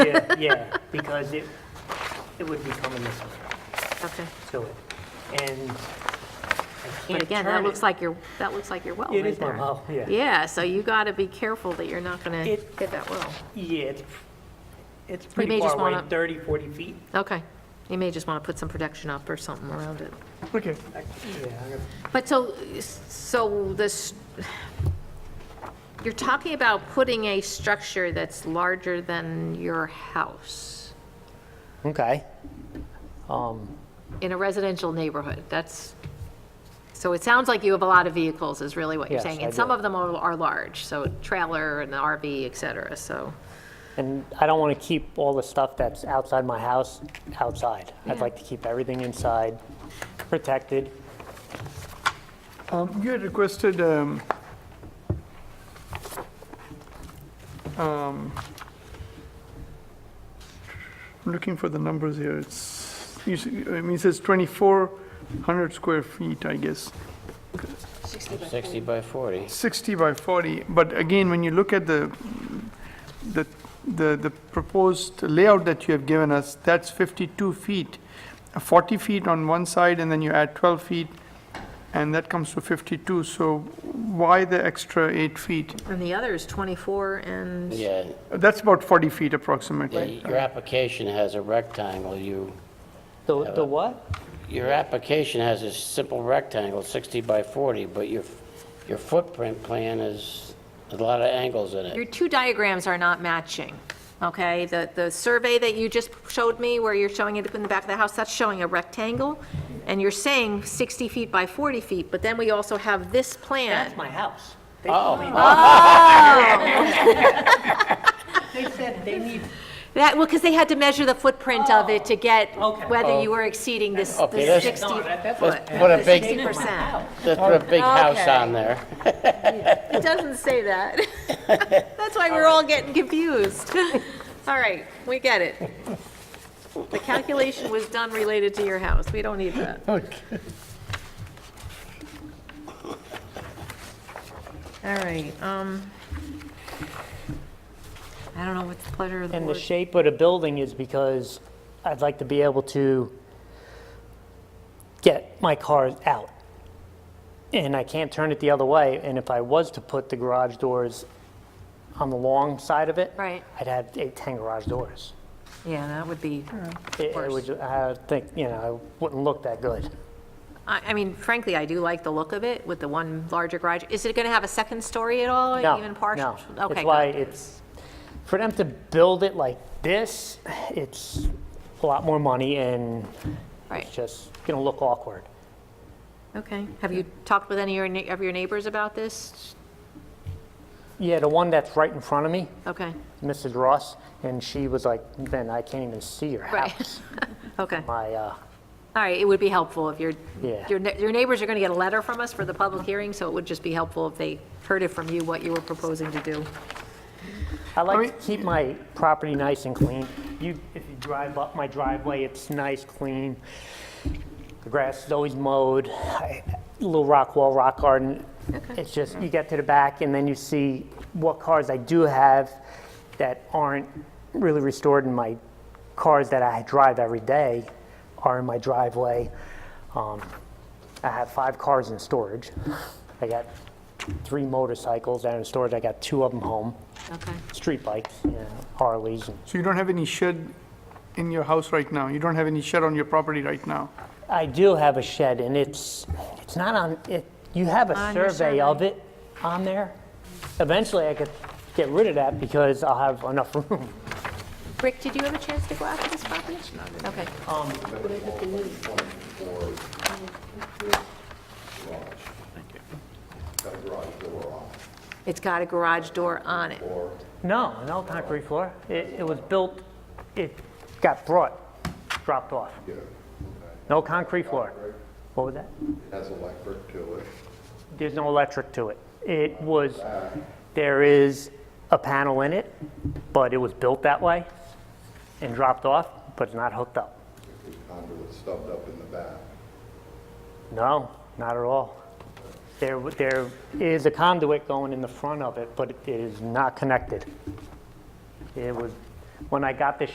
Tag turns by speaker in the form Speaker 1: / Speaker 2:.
Speaker 1: Yeah, yeah, because it, it would be coming this way
Speaker 2: Okay.
Speaker 1: to it. And I
Speaker 2: And
Speaker 1: can't
Speaker 2: again,
Speaker 1: turn
Speaker 2: that
Speaker 1: it.
Speaker 2: looks like your, that looks like your well
Speaker 1: It
Speaker 2: right
Speaker 1: is my
Speaker 2: there.
Speaker 1: well, yeah.
Speaker 2: Yeah, so you got to be careful that you're not going to
Speaker 1: It-
Speaker 2: hit that well.
Speaker 1: Yeah, it's, it's
Speaker 2: may
Speaker 1: pretty
Speaker 2: just
Speaker 1: far away,
Speaker 2: wanna-
Speaker 1: 30, 40 feet.
Speaker 2: Okay. You may just want to put some protection up or something around it.
Speaker 3: Okay.
Speaker 1: I- Yeah, I'm gonna-
Speaker 2: But so, so this, you're talking about putting a structure that's larger than your house
Speaker 3: Okay. Um,
Speaker 2: in a residential neighborhood. That's, so it sounds like you have a lot of vehicles is really what you're
Speaker 3: Yes,
Speaker 2: saying.
Speaker 3: I
Speaker 2: And some
Speaker 3: do.
Speaker 2: of them are, are large, so trailer and the RV, et cetera, so.
Speaker 3: and I don't want to keep all the stuff that's outside my house outside. I'd
Speaker 2: Yeah.
Speaker 3: like to keep everything inside, protected.
Speaker 4: Um, You had requested um, um, I'm looking for the numbers here. It's, you s- I mean, it says 2,400 square feet, I guess,
Speaker 5: 60 by 40.
Speaker 4: 60 by 40. But again, when you look at the, the, the the proposed layout that you have given us, that's 52 feet, 40 feet on one side, and then you add 12 feet, and that comes to 52. So why the extra eight feet?
Speaker 2: And the other is 24 and,
Speaker 5: Yeah,
Speaker 4: That's about 40 feet
Speaker 5: yeah,
Speaker 4: approximately.
Speaker 5: your application has a rectangle, you,
Speaker 3: The, the what?
Speaker 5: your application has a simple rectangle, 60 by 40, but your, your footprint plan is a lot of angles in
Speaker 2: your
Speaker 5: it.
Speaker 2: two diagrams are not matching, okay? The, the survey that you just showed me, where you're showing it in the back of the house, that's showing a rectangle, and you're saying 60 feet by 40 feet, but then we also have this plan.
Speaker 3: That's my house.
Speaker 5: Oh,
Speaker 3: They said they need.
Speaker 2: That, well, because they had to measure the footprint of it to get
Speaker 3: okay.
Speaker 2: whether you were exceeding this
Speaker 5: Oh. Okay,
Speaker 2: this
Speaker 5: that's-
Speaker 2: 60
Speaker 3: No, that- that's
Speaker 2: foot,
Speaker 5: what- what a
Speaker 2: the
Speaker 5: big-
Speaker 2: 60%.
Speaker 5: that's put a big house
Speaker 2: Okay.
Speaker 5: on there.
Speaker 2: It doesn't say that. That's why we're all getting confused. All right, we get it. The calculation was done related to your house. We don't need that. All right, um, I don't know what the pleasure of the
Speaker 3: And the
Speaker 2: board.
Speaker 3: shape of the building is because I'd like to be able to get my cars out. And I can't turn it the other way, and if I was to put the garage doors on the long side of it.
Speaker 2: Right.
Speaker 3: I'd have eight, 10 garage doors.
Speaker 2: Yeah, that would be,
Speaker 3: It- It would, I think, you know, it wouldn't look that good.
Speaker 2: I, I mean, frankly, I do like the look of it with the one larger garage. Is it going to have a second story at all?
Speaker 3: No,
Speaker 2: even partial?
Speaker 3: no.
Speaker 2: Okay,
Speaker 3: It's
Speaker 2: good.
Speaker 3: why it's, for them to build it like this, it's a lot more money and
Speaker 2: Right.
Speaker 3: it's just going to look awkward.
Speaker 2: Okay. Have you talked with any of your nei- of your neighbors about this?
Speaker 3: Yeah, the one that's right in front of me,
Speaker 2: Okay,
Speaker 3: Mrs. Ross, and she was like, Ben, I can't even see your
Speaker 2: Right.
Speaker 3: house.
Speaker 2: okay. All
Speaker 3: My, uh,
Speaker 2: right, it would be helpful if your,
Speaker 3: Yeah.
Speaker 2: your ne- your neighbors are going to get a letter from us for the public hearing, so it would just be helpful if they heard it from you, what you were proposing to do.
Speaker 3: I like to keep my property nice and clean. You, if you drive up my driveway, it's nice, clean. The grass is always mowed. I- Little rock wall, rock garden. It's just, you get to the back and then you see what cars I do have that aren't really restored and my cars that I drive every day are in my driveway. Um, I have five cars in storage. I got three motorcycles that are in storage. I got two of them home
Speaker 2: Okay.
Speaker 3: street bikes, you know, Harleys. and-
Speaker 4: So you don't have any shed in your house right now? You don't have any shed on your property right now?
Speaker 3: I do have a shed, and it's it's not on. It, you have a
Speaker 2: On your
Speaker 3: survey of it on there. Eventually, I could get rid of that because I'll have enough room.
Speaker 2: Rick, did you have a chance to go after this property? Okay. It's got a garage door on it.
Speaker 3: No, no concrete floor. It, it was built. It got brought, dropped off. No concrete floor. What was that?
Speaker 6: has electric to it.
Speaker 3: There's no electric to it. It was. There is a panel in it, but it was built that way and dropped off, but it's not hooked up.
Speaker 6: The conduit stubbed up in the back.
Speaker 3: No, not at all. There, w- there is a conduit going in the front of it, but it is not connected. It was When I got this